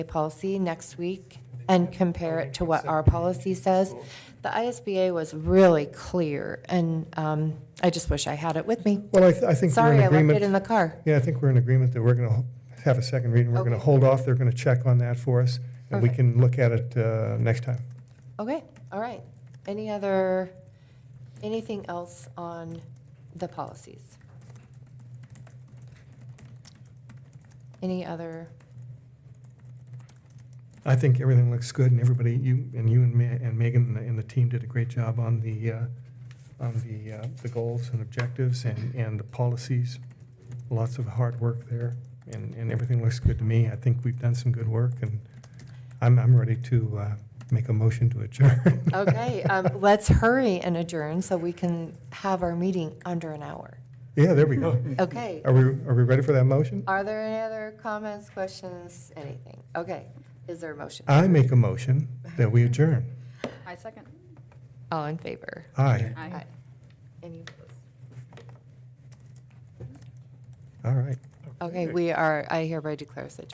policy next week and compare it to what our policy says. The ISBA was really clear, and um, I just wish I had it with me. Well, I, th- I think we're Sorry, in I left it in agreement. the car. Yeah, I think we're in agreement that we're going to have a second reading. We're going to Okay. hold off. They're going to check on that for us, and we Perfect. can look at it uh, next time. Okay, all right. Any other, anything else on the policies? Any other, I think everything looks good, and everybody, you, and you and Ma- and Megan and the- and the team did a great job on the, uh, on the, uh, the goals and objectives and, and the policies. Lots of hard work there, and, and everything looks good to me. I think we've done some good work, and I'm, I'm ready to uh, make a motion to adjourn. okay, um, let's hurry and adjourn so we can have our meeting under an hour. Yeah, there we go. Okay, Are we, are we ready for that motion? are there any other comments, questions, anything? Okay, is there a motion? I make a motion that we adjourn. I second. All in favor? Aye, Aye. Any opposed? all right. Okay, we are, I hereby declare us adjourned.